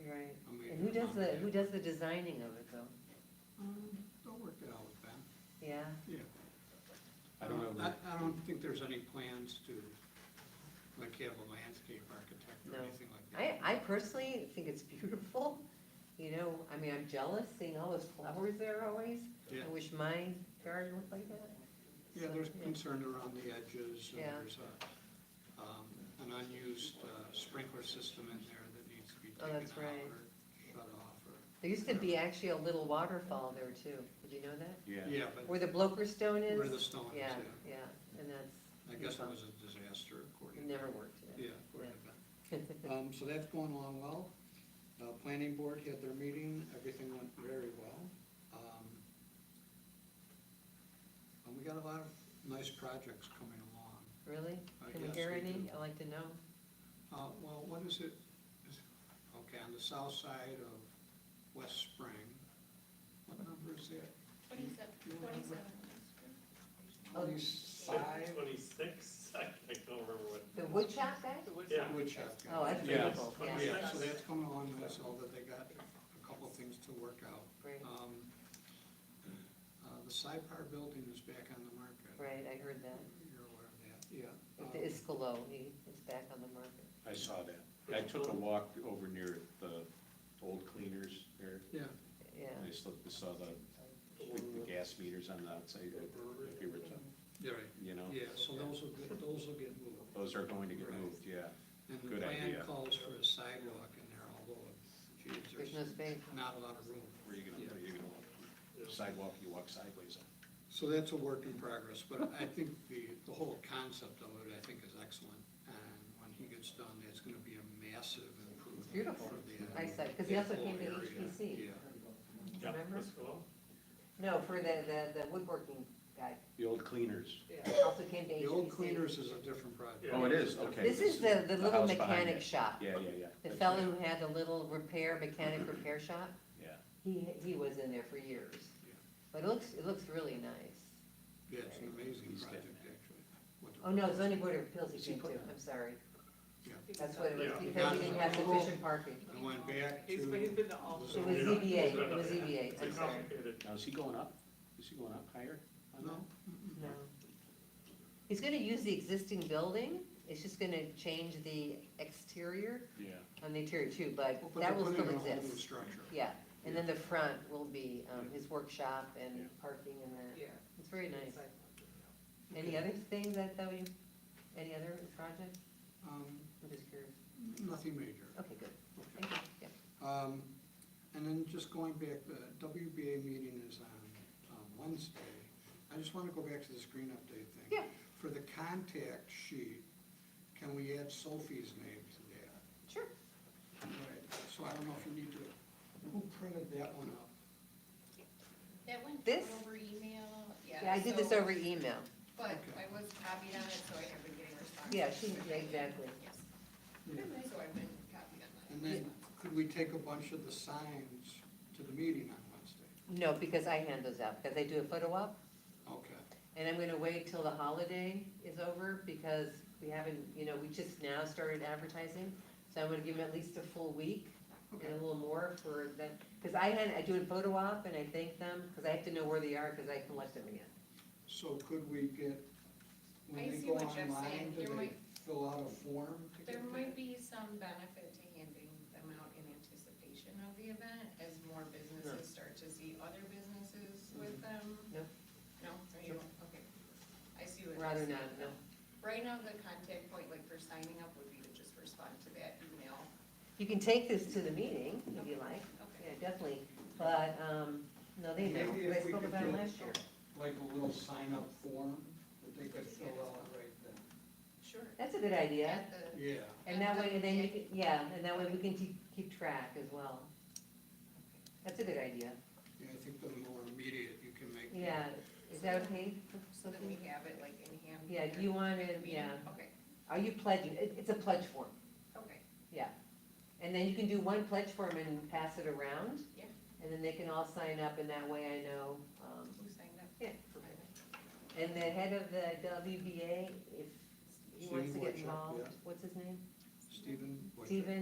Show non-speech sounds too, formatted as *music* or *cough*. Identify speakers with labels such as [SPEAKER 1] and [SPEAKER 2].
[SPEAKER 1] Right.
[SPEAKER 2] I mean,
[SPEAKER 1] And who does the, who
[SPEAKER 2] complicated.
[SPEAKER 1] does the designing of it though?
[SPEAKER 2] Um, They'll work it out with them,
[SPEAKER 1] Yeah?
[SPEAKER 2] yeah.
[SPEAKER 3] I don't know that-
[SPEAKER 2] I, I don't think there's any plans to, like, have a landscape architect or
[SPEAKER 1] No.
[SPEAKER 2] anything like
[SPEAKER 1] I,
[SPEAKER 2] that.
[SPEAKER 1] I personally think it's *laughs* beautiful, you know, I mean, I'm jealous seeing all those flowers there always.
[SPEAKER 2] Yeah.
[SPEAKER 1] I wish my garden looked like that.
[SPEAKER 2] Yeah,
[SPEAKER 1] So,
[SPEAKER 2] there's concern around the edges, and
[SPEAKER 1] Yeah.
[SPEAKER 2] there's a, um, an unused uh, sprinkler system in there that needs to be
[SPEAKER 1] Oh,
[SPEAKER 2] taken
[SPEAKER 1] that's
[SPEAKER 2] out
[SPEAKER 1] right.
[SPEAKER 2] or shut off or,
[SPEAKER 1] There used to be actually a little waterfall there too, did you know that?
[SPEAKER 3] Yeah,
[SPEAKER 2] yeah, but
[SPEAKER 1] Where the Bloker Stone is?
[SPEAKER 2] where the stone is,
[SPEAKER 1] Yeah,
[SPEAKER 2] yeah.
[SPEAKER 1] yeah, and that's,
[SPEAKER 2] I guess it was a disaster
[SPEAKER 1] it
[SPEAKER 2] according to
[SPEAKER 1] never worked.
[SPEAKER 2] Yeah, we're good then. Um, so that's going along well. Uh, planning board had their meeting, everything went very well. Um, And we got a lot of nice projects coming along.
[SPEAKER 1] *laughs* Really?
[SPEAKER 2] I
[SPEAKER 1] Can we
[SPEAKER 2] guess
[SPEAKER 1] hear
[SPEAKER 2] we
[SPEAKER 1] any?
[SPEAKER 2] do.
[SPEAKER 1] I'd like to know.
[SPEAKER 2] Uh, well, what is it, is, okay, on the south side of West Spring, what number is that?
[SPEAKER 4] Twenty-seven, twenty-seven.
[SPEAKER 1] Oh.
[SPEAKER 2] Twenty-five?
[SPEAKER 5] Twenty-six, I I don't remember what.
[SPEAKER 1] The wood shop guy?
[SPEAKER 5] Yeah,
[SPEAKER 2] Woodchuck.
[SPEAKER 1] Oh, that's
[SPEAKER 3] Yeah.
[SPEAKER 1] beautiful, yeah,
[SPEAKER 2] Yeah, so that's coming along nice, although they got a couple things to work out.
[SPEAKER 1] great,
[SPEAKER 2] Um, uh, The SIPAR building is back on the market.
[SPEAKER 1] right, I heard that.
[SPEAKER 2] You're aware of that, yeah.
[SPEAKER 1] With the
[SPEAKER 2] Um,
[SPEAKER 1] Iskolo, he is back on the market.
[SPEAKER 3] I saw that. I took a walk over near the old cleaners there.
[SPEAKER 2] Um, Yeah,
[SPEAKER 3] I
[SPEAKER 1] Yeah,
[SPEAKER 3] just looked, I saw the, like, the gas meters on the outside, if you were to,
[SPEAKER 2] you're right.
[SPEAKER 3] you know?
[SPEAKER 2] Yeah, so those will get, those will get moved.
[SPEAKER 3] Those are going to get moved, yeah.
[SPEAKER 2] And the
[SPEAKER 3] Oh, Good
[SPEAKER 2] plan
[SPEAKER 3] idea.
[SPEAKER 2] calls for a sidewalk in there, although, geez,
[SPEAKER 1] there's no
[SPEAKER 2] there's
[SPEAKER 1] space.
[SPEAKER 2] not a lot of room.
[SPEAKER 3] Where you gonna, where you gonna walk? Sidewalk, you walk sideways on.
[SPEAKER 2] So that's a work in progress, but I think the, the whole concept of it, I think, is excellent. And when he gets done, it's gonna be a massive improvement.
[SPEAKER 1] Beautiful.
[SPEAKER 2] for the-
[SPEAKER 1] I said, 'cause he also
[SPEAKER 2] the whole
[SPEAKER 1] came to
[SPEAKER 2] area.
[SPEAKER 1] HPC.
[SPEAKER 2] Yeah.
[SPEAKER 5] yeah,
[SPEAKER 1] Remember?
[SPEAKER 5] that's cool.
[SPEAKER 1] No, for the, the, the woodworking guy,
[SPEAKER 3] The old cleaners.
[SPEAKER 1] also came to
[SPEAKER 2] The old
[SPEAKER 1] HPC.
[SPEAKER 2] cleaners is a different project.
[SPEAKER 5] Yeah.
[SPEAKER 3] Oh, it is, okay.
[SPEAKER 1] This is the, the little
[SPEAKER 3] house behind
[SPEAKER 1] mechanic
[SPEAKER 3] it.
[SPEAKER 1] shop.
[SPEAKER 3] Yeah, yeah, yeah.
[SPEAKER 1] The
[SPEAKER 3] That's
[SPEAKER 1] fellow
[SPEAKER 3] right.
[SPEAKER 1] who had the little repair, mechanic repair shop,
[SPEAKER 3] Yeah.
[SPEAKER 1] he, he was in there for years.
[SPEAKER 2] Yeah.
[SPEAKER 1] But it looks, it looks really nice.
[SPEAKER 2] Yeah, it's an amazing
[SPEAKER 3] He's
[SPEAKER 2] project,
[SPEAKER 3] dead.
[SPEAKER 2] actually. What the-
[SPEAKER 1] Oh, no, zoning board of appeals he
[SPEAKER 2] Is he
[SPEAKER 1] came to,
[SPEAKER 2] put-
[SPEAKER 1] I'm sorry.
[SPEAKER 2] Yeah.
[SPEAKER 1] That's what it was,
[SPEAKER 5] Yeah.
[SPEAKER 1] because he didn't have sufficient parking.
[SPEAKER 2] I went back to.
[SPEAKER 6] He's, but he's been to all
[SPEAKER 1] It was
[SPEAKER 5] Yeah.
[SPEAKER 1] ZBA, it was ZBA,
[SPEAKER 5] It's
[SPEAKER 1] I'm sorry.
[SPEAKER 5] complicated.
[SPEAKER 3] Now, is he going up? Is he going up higher? on
[SPEAKER 2] No,
[SPEAKER 1] No. He's gonna use the existing building, it's just gonna change the exterior
[SPEAKER 3] that? Yeah.
[SPEAKER 1] on the interior too, but
[SPEAKER 2] Well, but
[SPEAKER 1] that
[SPEAKER 2] they're
[SPEAKER 1] will
[SPEAKER 2] putting
[SPEAKER 1] still
[SPEAKER 2] in a whole new
[SPEAKER 1] exist.
[SPEAKER 2] Structure.
[SPEAKER 1] Yeah, and then the front will be, um, his workshop
[SPEAKER 3] Yeah.
[SPEAKER 1] and parking and that.
[SPEAKER 6] Yeah.
[SPEAKER 1] It's very nice.
[SPEAKER 6] Sidewalk,
[SPEAKER 1] Any other thing that, that we, any other project?
[SPEAKER 2] Um,
[SPEAKER 1] I'm just curious.
[SPEAKER 2] nothing major.
[SPEAKER 1] Okay, good.
[SPEAKER 2] Okay.
[SPEAKER 1] Thank you. Yeah.
[SPEAKER 2] Um, and then just going back, the WBA meeting is on, um Wednesday. I just wanna go back to this green update thing.
[SPEAKER 1] Yeah.
[SPEAKER 2] For the contact sheet, can we add Sophie's name to that?
[SPEAKER 1] Sure.
[SPEAKER 2] Right, so I don't know if you need to, who printed that one up?
[SPEAKER 4] That went
[SPEAKER 1] This?
[SPEAKER 4] over email, yeah.
[SPEAKER 1] Yeah, I did this
[SPEAKER 4] so-
[SPEAKER 1] over email.
[SPEAKER 4] But I was copied on it, so I have been getting responses.
[SPEAKER 1] Yeah, she, yeah, exactly.
[SPEAKER 4] Yes. So I've been copied on that.
[SPEAKER 2] And then, could we take a bunch of the signs to the meeting on Wednesday?
[SPEAKER 1] No, because I hand those out, because I do a photo op,
[SPEAKER 2] Okay.
[SPEAKER 1] And I'm gonna wait till the holiday is over, because we haven't, you know, we just now started advertising. So I'm gonna give them at least a full week and a little more for that, because I had, I do a photo op and I thank them, because I have to know where they are, because I collect them again.
[SPEAKER 2] So could we get,
[SPEAKER 4] I
[SPEAKER 2] when they
[SPEAKER 4] see
[SPEAKER 2] go
[SPEAKER 4] what Jeff's
[SPEAKER 2] online,
[SPEAKER 4] saying.
[SPEAKER 2] do
[SPEAKER 4] There
[SPEAKER 2] they
[SPEAKER 4] might-
[SPEAKER 2] fill out a form to get
[SPEAKER 4] There
[SPEAKER 2] that?
[SPEAKER 4] might be some benefit to handing them out in anticipation of the event as more businesses start to see other businesses with them.
[SPEAKER 1] Mm-hmm. No.
[SPEAKER 4] No, So you don't, okay. I see what. you're
[SPEAKER 1] Rather
[SPEAKER 4] saying.
[SPEAKER 1] not, no.
[SPEAKER 4] Right now, the contact point, like for signing up, would be to just respond to that email.
[SPEAKER 1] You can take this to the meeting if you like,
[SPEAKER 4] Okay.
[SPEAKER 1] yeah, definitely, but, um, no, they know,
[SPEAKER 2] Maybe
[SPEAKER 1] 'cause I
[SPEAKER 2] if we
[SPEAKER 1] spoke
[SPEAKER 2] could
[SPEAKER 1] about it
[SPEAKER 2] do-
[SPEAKER 1] last year.
[SPEAKER 2] Like a little sign-up form that they could fill out right then?
[SPEAKER 4] Sure.
[SPEAKER 1] That's a good idea,
[SPEAKER 4] At the-
[SPEAKER 2] Yeah.
[SPEAKER 1] and that way, and then you can, yeah, and that way we can keep, keep track as well. That's a good idea.
[SPEAKER 2] Yeah, I think the more immediate you can make. it.
[SPEAKER 1] Yeah, is that okay?
[SPEAKER 4] So that we have it like in hand.
[SPEAKER 1] Yeah, do you want to, yeah,
[SPEAKER 4] Okay,
[SPEAKER 1] are you pledging, it, it's a pledge form,
[SPEAKER 4] okay,
[SPEAKER 1] yeah. And then you can do one pledge form and pass it around.
[SPEAKER 4] Yeah.
[SPEAKER 1] And then they can all sign up and that way I know, um,
[SPEAKER 4] who signed up?
[SPEAKER 1] yeah. And the head of the WBA, if he wants to
[SPEAKER 2] Steve
[SPEAKER 1] get
[SPEAKER 2] Wojcik,
[SPEAKER 1] involved,
[SPEAKER 2] yeah.
[SPEAKER 1] what's his name?
[SPEAKER 2] Stephen? Wojcik.
[SPEAKER 1] Steven